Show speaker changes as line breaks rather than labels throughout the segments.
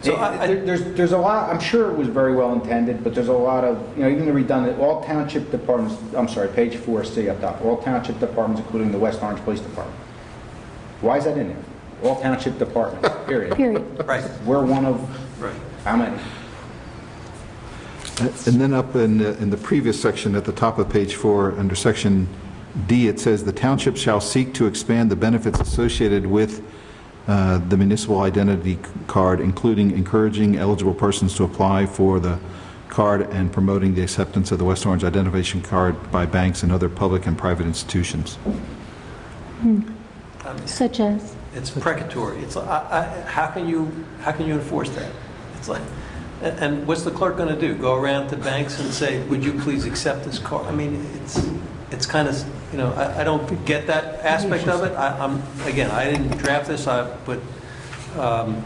So I- I-
There- There's, there's a lot, I'm sure it was very well intended, but there's a lot of, you know, even the redundant, all township departments, I'm sorry, page four, C up top, all township departments, including the West Orange Police Department. Why is that in there? All township departments, period.
period.
Right,
We're one of,
right.
how many?
And then up in, the- in the previous section, at the top of page four, under section D, it says, "The township shall seek to expand the benefits associated with uh, the municipal identity card, including encouraging eligible persons to apply for the card and promoting the acceptance of the West Orange identification card by banks and other public and private institutions."
Um,
Such as,
It's precatory. It's, like, I, I, how can you, how can you enforce that? It's like, and- and what's the clerk going to do? Go around to banks and say, would you please accept this card? I mean, it's, it's kind of, you know, I, I don't get that aspect of it. I, I'm, again, I didn't draft this, I, but, um,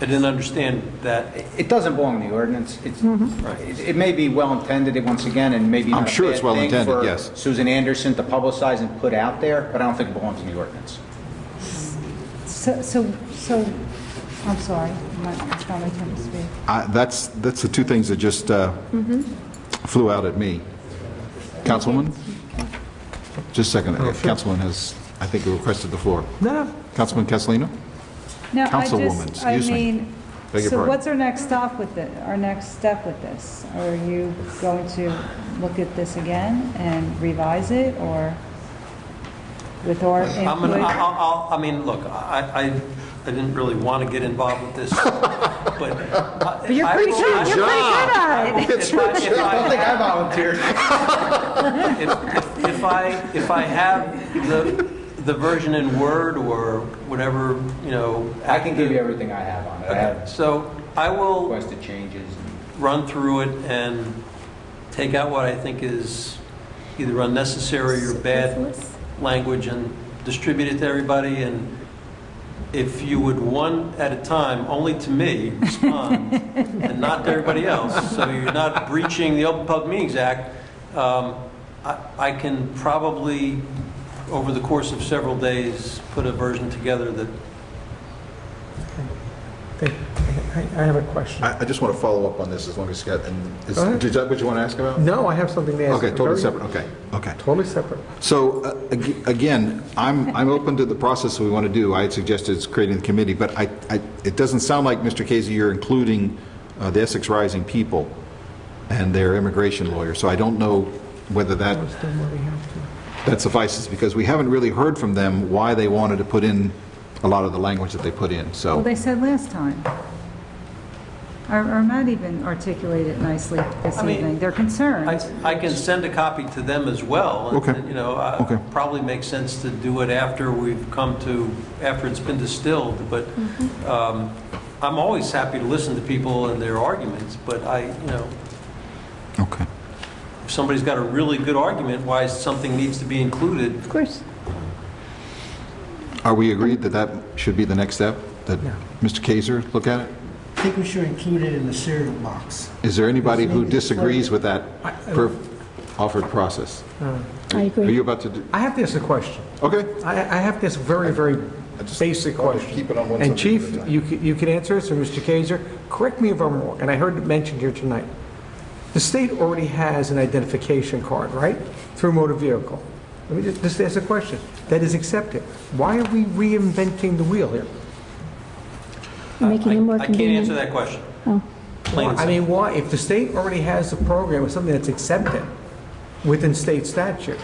I didn't understand that.
It- It doesn't belong in the ordinance. It's, it- it may be well intended, it- once again, and maybe
I'm
not a
sure it's
bad
well
thing
intended,
for
yes.
Susan Anderson to publicize and put out there, but I don't think it belongs in the ordinance.
So, so, so, I'm sorry, my- it's not my turn to speak.
I- That's, that's the two things that just uh, flew out at me. Councilwoman? Just a second. Councilwoman has, I think, requested the floor.
Oh, No,
Councilman Castellino?
No, I
Councilwoman,
just, I
excuse me.
mean,
Beg your
so
pardon.
what's our next stop with it, our next step with this? Are you going to look at this again and revise it, or with our
I'm gonna, I-
input?
I'll, I'll- I mean, look, I, I, I didn't really want to get involved with this, but. uh, But
you're pretty good, you're pretty good at it.
I don't think I volunteered.
If if- if I, if I have the, the version in Word or whatever, you know.
I can give you everything I have on it. I have
So I will
requested changes.
run through it and take out what I think is either unnecessary or bad
Superfluous.
language and distribute it to everybody. And if you would, one at a time, only to me, respond, and not to everybody else, so you're not breaching the Open Public Meetings Act, um, I I can probably, over the course of several days, put a version together that
I I have a question.
I I just want to follow up on this as long as you got, and is
Go ahead.
is that what you want to ask about?
No, I have something to ask.
Okay, totally
Very-
separate, okay, okay.
Totally separate.
So uh, ag- again, I'm, I'm open to the process we want to do. I had suggested it's creating the committee, but I, I, it doesn't sound like, Mr. Casey, you're including uh, the Essex Rising people and their immigration lawyer. So I don't know whether that,
Let's do what we have to.
that suffices, because we haven't really heard from them why they wanted to put in a lot of the language that they put in,
Well,
so.
they said last time. Or, or Matt even articulated it nicely this
I mean,
evening, their concerns.
I, I can send a copy to them as well. and,
Okay.
You know, uh,
Okay.
probably makes sense to do it after we've come to, after it's been distilled, but
Mm-hmm.
um, I'm always happy to listen to people and their arguments, but I, you know,
Okay.
if somebody's got a really good argument why something needs to be included,
Of course.
Are we agreed that that should be the next step? That
Yeah.
Mr. Kaiser look at it?
I think we should include it in the cereal box.
Is there anybody who
Maybe it's
disagrees with that
I-
per- offered process?
I
Are you
agree.
about to, do-
I have to ask a question.
okay.
I I have this very, very basic question.
keep it on one
And
subject
Chief,
at a time.
you c- you can answer this, or Mr. Kaiser, correct me if I'm wrong, and I heard it mentioned here tonight. The state already has an identification card, right, through motor vehicle? Let me ju- just ask a question. That is accepted. Why are we reinventing the wheel here?
You're making
I
it more
I can't
convenient.
answer that question.
Oh.
Plain and
I mean, why, if the state already has a program with something that's accepted within state statute,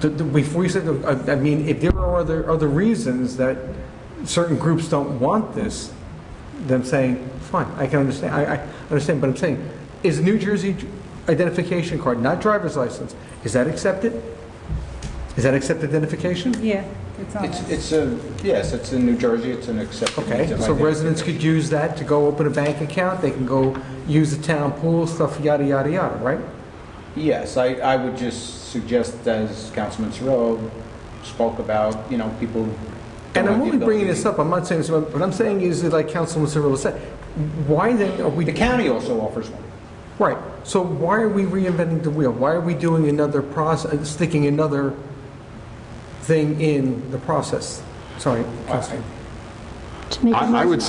th- th- if we said, uh, I I mean, if there are other, other reasons that certain groups don't want this, then saying, fine, I can understand, I, I understand, but I'm saying, is New Jersey identification card, not driver's license, is that accepted? Is that accepted identification?
Yeah, it's on
It's,
us.
it's a, yes, it's in New Jersey, it's an acceptable.
Okay, so residents could use that to go open a bank account, they can go use the town pool, stuff, yada, yada, yada, right?
Yes, I, I would just suggest, as Councilman Cirillo spoke about, you know, people. don't have
And I'm
the
only bringing
ability-
this up, I'm not saying this, but what I'm saying is, that, like Councilman Cirillo said, why then are we...
The county also offers one.
Right, so why are we reinventing the wheel? Why are we doing another process, sticking another thing in the process? Sorry, Councilman.
To make it
I
more
I would